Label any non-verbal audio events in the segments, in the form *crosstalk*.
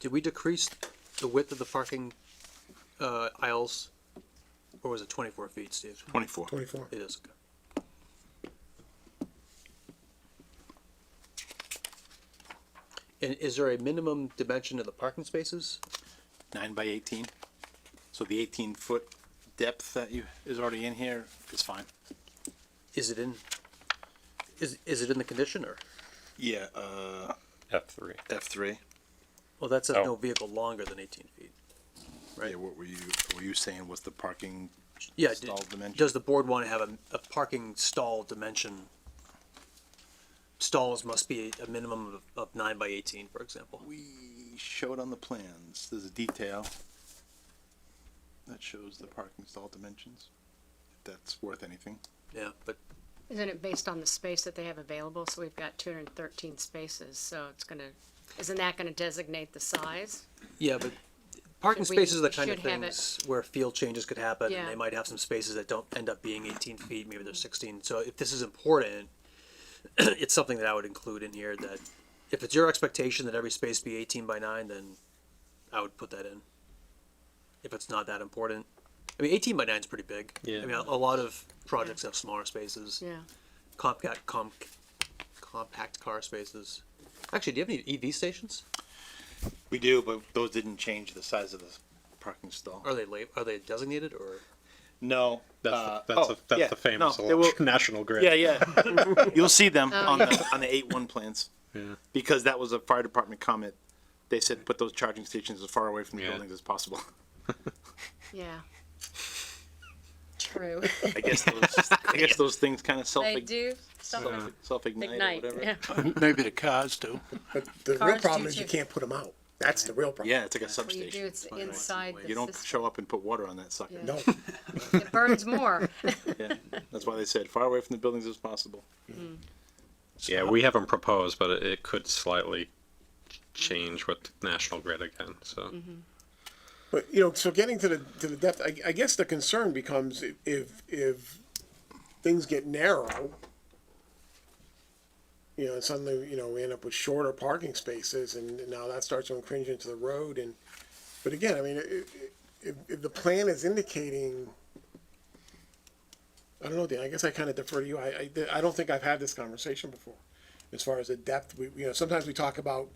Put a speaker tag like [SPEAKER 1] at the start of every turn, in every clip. [SPEAKER 1] Did we decrease the width of the parking uh, aisles? Or was it twenty-four feet, Steve?
[SPEAKER 2] Twenty-four.
[SPEAKER 3] twenty-four.
[SPEAKER 1] It is. And is there a minimum dimension of the parking spaces?
[SPEAKER 2] Nine by eighteen. So the eighteen foot depth that you, is already in here is fine.
[SPEAKER 1] Is it in, is, is it in the condition or?
[SPEAKER 2] Yeah, uh,
[SPEAKER 4] F three.
[SPEAKER 2] F three.
[SPEAKER 1] Well, that says
[SPEAKER 4] Oh.
[SPEAKER 1] no vehicle longer than eighteen feet. Right.
[SPEAKER 2] Yeah, what were you, were you saying was the parking?
[SPEAKER 1] Yeah, d-
[SPEAKER 2] Stall dimension.
[SPEAKER 1] does the board want to have a, a parking stall dimension? Stalls must be a minimum of, of nine by eighteen, for example.
[SPEAKER 2] We showed on the plans, there's a detail that shows the parking stall dimensions, if that's worth anything.
[SPEAKER 1] Yeah, but
[SPEAKER 5] Isn't it based on the space that they have available? So we've got two hundred and thirteen spaces, so it's gonna, isn't that gonna designate the size?
[SPEAKER 1] Yeah, but parking
[SPEAKER 5] Should we-
[SPEAKER 1] spaces are the
[SPEAKER 5] we
[SPEAKER 1] kind of
[SPEAKER 5] should have it-
[SPEAKER 1] things where field changes could happen, and
[SPEAKER 5] Yeah.
[SPEAKER 1] they might have some spaces that don't end up being eighteen feet, maybe they're sixteen, so if this is important, *clears throat* it's something that I would include in here, that if it's your expectation that every space be eighteen by nine, then I would put that in. If it's not that important, I mean, eighteen by nine's pretty big.
[SPEAKER 4] Yeah.
[SPEAKER 1] I mean, a a lot of projects have smaller spaces,
[SPEAKER 5] Yeah.
[SPEAKER 1] compact, com- compact car spaces. Actually, do you have any EV stations?
[SPEAKER 2] We do, but those didn't change the size of the parking stall.
[SPEAKER 1] Are they late, are they designated, or?
[SPEAKER 2] No.
[SPEAKER 4] That's
[SPEAKER 2] uh,
[SPEAKER 4] the, that's
[SPEAKER 2] oh,
[SPEAKER 4] the, that's
[SPEAKER 2] yeah,
[SPEAKER 4] the famous
[SPEAKER 2] no, they will-
[SPEAKER 4] elec- *laughs* national grid.
[SPEAKER 2] Yeah, *laughs* yeah. You'll see them
[SPEAKER 5] Oh,
[SPEAKER 2] on the, on the eight one plans.
[SPEAKER 4] Yeah.
[SPEAKER 2] Because that was a fire department comment. They said put those charging stations as far away from the
[SPEAKER 4] Yeah.
[SPEAKER 2] buildings as
[SPEAKER 5] *laughs*
[SPEAKER 2] possible. *laughs*
[SPEAKER 5] Yeah. True.
[SPEAKER 2] I guess those, I guess those things kind of self
[SPEAKER 5] They do stuff like
[SPEAKER 2] self ignite
[SPEAKER 5] ignite,
[SPEAKER 2] or whatever.
[SPEAKER 5] yeah.
[SPEAKER 6] Maybe the cars do.
[SPEAKER 3] But the real
[SPEAKER 5] Cars do
[SPEAKER 3] problem is you
[SPEAKER 5] too.
[SPEAKER 3] can't put them out. That's the real problem.
[SPEAKER 2] Yeah, it's like a
[SPEAKER 5] What you
[SPEAKER 2] substation.
[SPEAKER 5] do, it's inside
[SPEAKER 2] You
[SPEAKER 5] the
[SPEAKER 2] don't
[SPEAKER 5] system.
[SPEAKER 2] show up and put water on that sucker.
[SPEAKER 5] Yeah.
[SPEAKER 3] No,
[SPEAKER 5] *laughs* It burns more.
[SPEAKER 2] Yeah. *laughs* That's why they said far away from the buildings as possible.
[SPEAKER 4] Yeah, we haven't proposed, but it, it could slightly ch- change with national grid again, so.
[SPEAKER 3] Mm-hmm. but you know, so getting to the, to the depth, I, I guess the concern becomes i- if, if things get narrow, you know, and suddenly, you know, we end up with shorter parking spaces and now that starts to infringe into the road and, but again, I mean, i- i- if, if the plan is indicating, I don't know, Dan, I guess I kind of defer to you. I, I, I don't think I've had this conversation before. As far as the depth, we, you know, sometimes we talk about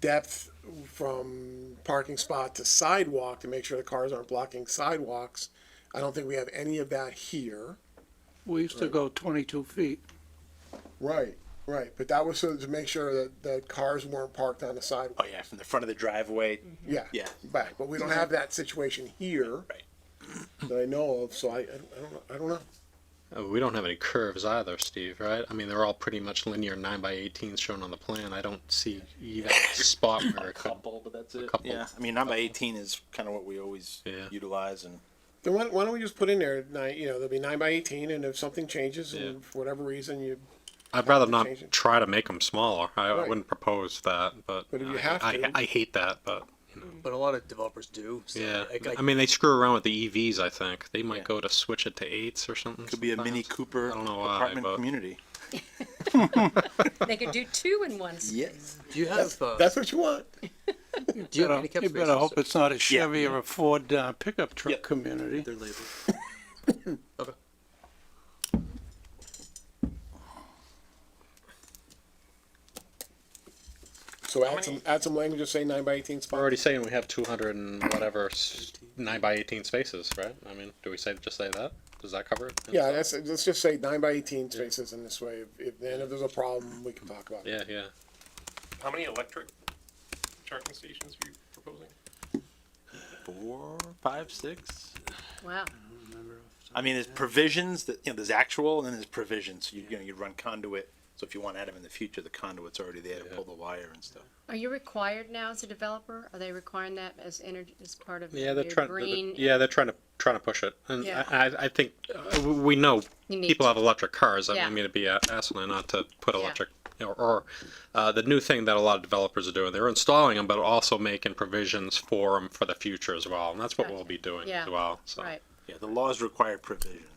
[SPEAKER 3] depth from parking spot to sidewalk to make sure the cars aren't blocking sidewalks. I don't think we have any of that here.
[SPEAKER 6] We used to go twenty-two feet.
[SPEAKER 3] Right, right. But that was so to make sure that, that cars weren't parked on the sidewalk.
[SPEAKER 2] Oh yeah, from the front of the driveway.
[SPEAKER 5] Mm-hmm.
[SPEAKER 3] Yeah.
[SPEAKER 2] Yeah.
[SPEAKER 3] Right, but we don't have that situation here.
[SPEAKER 2] Right.
[SPEAKER 3] That I know of, so I, I don't- I don't, know- I don't know.
[SPEAKER 4] Uh, We don't have any curves either, Steve, right? I mean, they're all pretty much linear nine by eighteens shown on the plan. I don't see either *laughs* spot where it could.
[SPEAKER 2] but that's
[SPEAKER 4] it. couple.
[SPEAKER 2] Yeah, I mean, nine by eighteen is kind of what we always
[SPEAKER 4] Yeah.
[SPEAKER 2] utilize and.
[SPEAKER 3] Then why, why don't we just put in there nine, you know, there'll be nine by eighteen and if something changes
[SPEAKER 4] Yeah.
[SPEAKER 3] and for whatever reason you,
[SPEAKER 4] I'd rather not
[SPEAKER 3] Change it.
[SPEAKER 4] try to make them smaller. I, I
[SPEAKER 3] Right.
[SPEAKER 4] wouldn't propose that, but.
[SPEAKER 3] But if you
[SPEAKER 4] I-
[SPEAKER 3] have
[SPEAKER 4] I,
[SPEAKER 3] to.
[SPEAKER 4] I hate that, but,
[SPEAKER 1] But a lot of developers do. So
[SPEAKER 4] yeah.
[SPEAKER 1] I, I,
[SPEAKER 4] I mean, they screw around with the EVs, I think. They might
[SPEAKER 2] Yeah.
[SPEAKER 4] go to switch it to eights or something.
[SPEAKER 2] Could be a Mini
[SPEAKER 4] sometimes.
[SPEAKER 2] Cooper
[SPEAKER 4] I don't know why,
[SPEAKER 2] apartment
[SPEAKER 4] but-
[SPEAKER 2] community.
[SPEAKER 5] They could do two in one. space.
[SPEAKER 2] Yes.
[SPEAKER 1] do you have uh,
[SPEAKER 3] that's what you want.
[SPEAKER 1] do you have
[SPEAKER 6] Better-
[SPEAKER 1] handicap
[SPEAKER 6] You better hope
[SPEAKER 1] spaces?
[SPEAKER 6] it's not a Chevy or a Ford uh, pickup
[SPEAKER 2] Yeah.
[SPEAKER 6] truck community.
[SPEAKER 1] They're labeled. okay.
[SPEAKER 3] So add some, add some language, just say nine by eighteen
[SPEAKER 4] We're
[SPEAKER 3] spot.
[SPEAKER 4] already saying we have two hundred and whatever s- nine by eighteen spaces, right? I mean, do we say, just say that? Does that cover it?
[SPEAKER 3] Yeah, that's, let's just say nine by eighteen spaces in this way. If- If, then if there's a problem, we can talk about it.
[SPEAKER 4] Yeah, yeah.
[SPEAKER 7] How many electric charging stations are you proposing?
[SPEAKER 2] Four, five, six.
[SPEAKER 5] Wow.
[SPEAKER 2] I mean, there's provisions that, you know, there's actual and then there's provisions. You, you know, you'd run conduit. So if you want to add them in the future, the conduit's already there to
[SPEAKER 4] Yeah.
[SPEAKER 2] pull the wire and stuff.
[SPEAKER 5] Are you required now as a developer? Are they requiring that as energy, as part of
[SPEAKER 4] Yeah,
[SPEAKER 5] your
[SPEAKER 4] they're trying, they're-
[SPEAKER 5] green?
[SPEAKER 4] yeah, they're trying to, trying to push it. And
[SPEAKER 5] Yeah.
[SPEAKER 4] I, I- I think, uh, we- we know
[SPEAKER 5] You need
[SPEAKER 4] people
[SPEAKER 5] to.
[SPEAKER 4] have electric cars. I
[SPEAKER 5] Yeah.
[SPEAKER 4] mean, it'd be a- asinine not to put
[SPEAKER 5] Yeah.
[SPEAKER 4] electric, or, or, uh, the new thing that a lot of developers are doing, they're installing them, but also making provisions for them for the future as well. And that's what
[SPEAKER 5] Gotcha.
[SPEAKER 4] we'll be doing
[SPEAKER 5] Yeah.
[SPEAKER 4] as well, so.
[SPEAKER 5] Right.
[SPEAKER 2] Yeah, the laws require provisions.